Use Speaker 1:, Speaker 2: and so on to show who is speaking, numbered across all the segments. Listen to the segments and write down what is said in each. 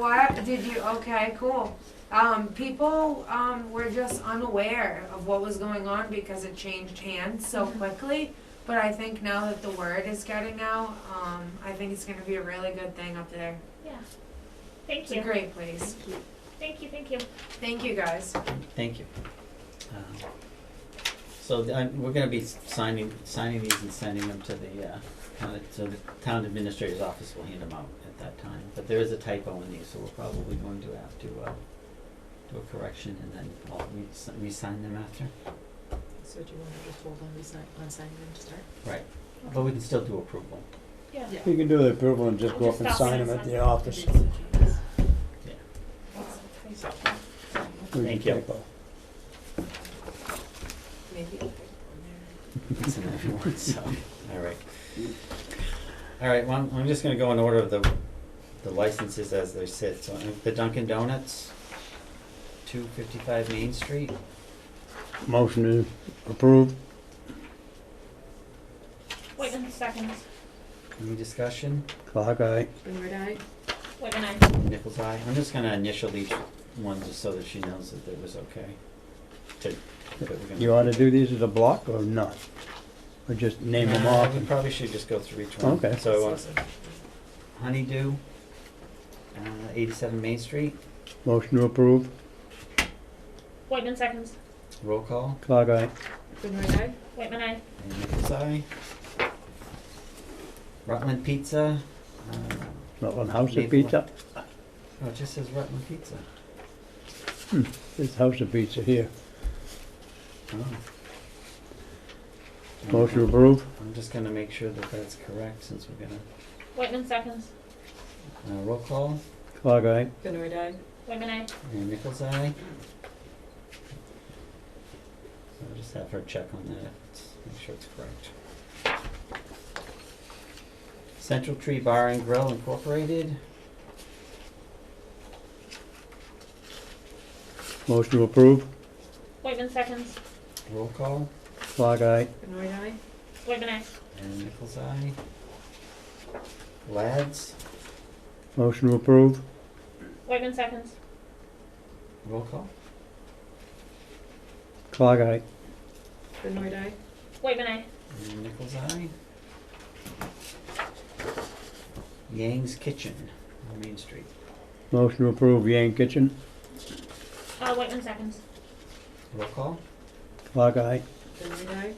Speaker 1: What did you? Okay, cool. Um, people um, were just unaware of what was going on because it changed hands so
Speaker 2: Mm-hmm.
Speaker 1: quickly. But I think now that the word is getting out, um, I think it's going to be a really good thing up there.
Speaker 3: Thank
Speaker 1: It's a
Speaker 3: you.
Speaker 1: great place.
Speaker 3: Thank you, thank you.
Speaker 1: Thank you guys.
Speaker 4: Thank you. Um, So th- I'm, we're gonna be s- signing, signing these and sending them to the, uh, kind of, to the town administrator's office, we'll hand them out at that time. But there is a typo in these, so we're probably going to have to, uh, do a correction and then I'll re- s- re-sign them after.
Speaker 2: So do you wanna just hold on, resign, on signing them to start?
Speaker 4: Right, but we can still do approval,
Speaker 3: Yeah.
Speaker 2: Yeah.
Speaker 5: You can do the approval and just go
Speaker 3: We'll
Speaker 5: up
Speaker 3: just
Speaker 5: and
Speaker 3: stop
Speaker 5: sign
Speaker 3: and
Speaker 5: them at
Speaker 3: sign.
Speaker 5: the office.
Speaker 4: yeah.
Speaker 5: We
Speaker 4: Thank
Speaker 5: can
Speaker 4: you.
Speaker 5: take both.
Speaker 4: It's in everyone, so, all right. All right, well, I'm- I'm just gonna go in order of the, the licenses as they sit, so uh, the Dunkin' Donuts, two fifty-five Main Street.
Speaker 5: Motion is approved.
Speaker 3: Wait a second.
Speaker 4: Any discussion?
Speaker 5: Clock eye.
Speaker 2: Benoit eye?
Speaker 3: Wait a minute.
Speaker 4: Nichols eye? I'm just gonna initial each one just so that she knows that it was okay. To, that we're gonna.
Speaker 5: You ought to do these as a block or not? Or just name them
Speaker 4: Uh,
Speaker 5: off?
Speaker 4: We
Speaker 5: and-
Speaker 4: probably should just go through each one.
Speaker 5: Okay.
Speaker 4: So, uh, Honeydew, uh, eighty-seven Main Street,
Speaker 5: Motion to approve.
Speaker 3: Wait a second.
Speaker 4: roll call,
Speaker 5: Clock eye.
Speaker 2: Benoit eye?
Speaker 3: Wait a minute.
Speaker 4: and Nichols eye. Rutland Pizza, uh,
Speaker 5: Rutland House
Speaker 4: Maple.
Speaker 5: of Pizza.
Speaker 4: oh, it just says Rutland Pizza.
Speaker 5: This House of Pizza here.
Speaker 4: Oh.
Speaker 5: Motion to approve.
Speaker 4: I'm just gonna make sure that that's correct since we're gonna,
Speaker 3: Wait a second.
Speaker 4: uh, roll call.
Speaker 5: Clock eye.
Speaker 2: Benoit eye?
Speaker 3: Wait a minute.
Speaker 4: And Nichols eye. So I'll just have her check on that, make sure it's correct. Central Tree Bar and Grill Incorporated,
Speaker 5: Motion to approve.
Speaker 3: Wait a second.
Speaker 4: roll call,
Speaker 5: Clock eye.
Speaker 2: Benoit eye?
Speaker 3: Wait a minute.
Speaker 4: and Nichols eye. Lads,
Speaker 5: Motion to approve.
Speaker 3: Wait a second.
Speaker 4: roll call,
Speaker 5: Clock eye.
Speaker 2: Benoit eye?
Speaker 3: Wait a minute.
Speaker 4: and Nichols eye. Yang's Kitchen on Main Street,
Speaker 5: Motion to approve. Yang Kitchen.
Speaker 3: Uh, wait a second.
Speaker 4: roll call,
Speaker 5: Clock eye.
Speaker 2: Benoit eye?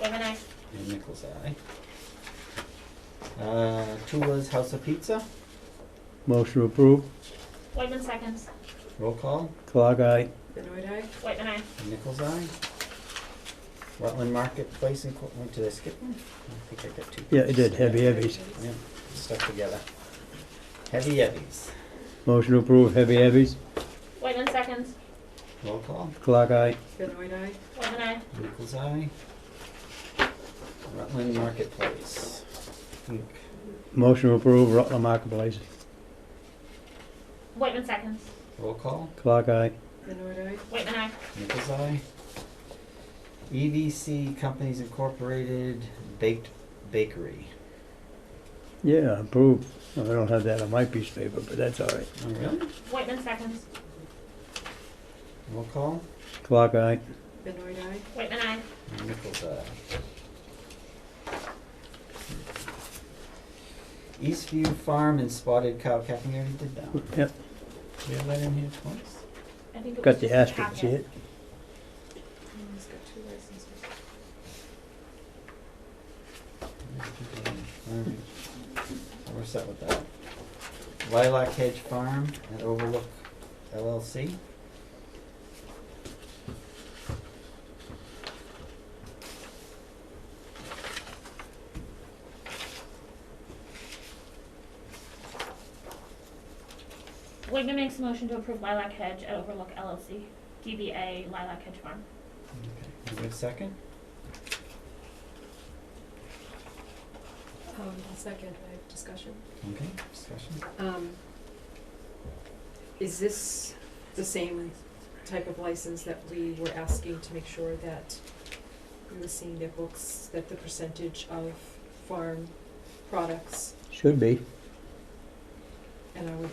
Speaker 3: Wait a minute.
Speaker 4: and Nichols eye. Uh, Tula's House of Pizza,
Speaker 5: Motion to approve.
Speaker 3: Wait a second.
Speaker 4: roll call,
Speaker 5: Clock eye.
Speaker 2: Benoit eye?
Speaker 3: Wait a minute.
Speaker 4: Nichols Eye. Rutland Marketplace and, went to I skip one? I think I got two.
Speaker 5: Yeah, it did. Heavy Heavies.
Speaker 4: Yeah, stuck together. Heavy heavies.
Speaker 5: Motion to approve. Heavy Heavies.
Speaker 3: Wait a second.
Speaker 4: Roll call.
Speaker 5: Clock eye.
Speaker 2: Benoit eye?
Speaker 3: Wait a minute.
Speaker 4: Nichols Eye. Rutland Marketplace. Inc.
Speaker 5: Motion to approve. Rutland Marketplace.
Speaker 3: Wait a second.
Speaker 4: Roll call.
Speaker 5: Clock eye.
Speaker 2: Benoit eye?
Speaker 3: Wait a minute.
Speaker 4: Nichols Eye. EVC Companies Incorporated Baked Bakery.
Speaker 5: Yeah, approved. No, I don't have that on my piece of paper, but that's all right.
Speaker 4: Oh, really?
Speaker 3: Wait a second.
Speaker 4: Roll call.
Speaker 5: Clock eye.
Speaker 2: Benoit eye?
Speaker 3: Wait a minute.
Speaker 4: Nichols Eye. Eastview Farm and Spotted Cow Cafe, we already did that one.
Speaker 5: Yep,
Speaker 4: Did I let in here twice?
Speaker 3: I think it
Speaker 5: got
Speaker 3: was
Speaker 5: the
Speaker 3: just a
Speaker 5: asterisk, see
Speaker 3: packet.
Speaker 5: it?
Speaker 2: Mm, He's got two licenses.
Speaker 4: Alright, so we're set with that. Lilac Hedge Farm at Overlook LLC.
Speaker 3: Wigman makes a motion to approve Lilac Hedge at Overlook LLC, DBA Lilac Hedge Farm.
Speaker 4: Can we have a second?
Speaker 2: Um, I'll second, I have discussion.
Speaker 4: Okay, discussion.
Speaker 2: Um, is this the same type of license that we were asking to make sure that we were seeing their books, that the percentage of farm products,
Speaker 5: Should be.
Speaker 2: and are we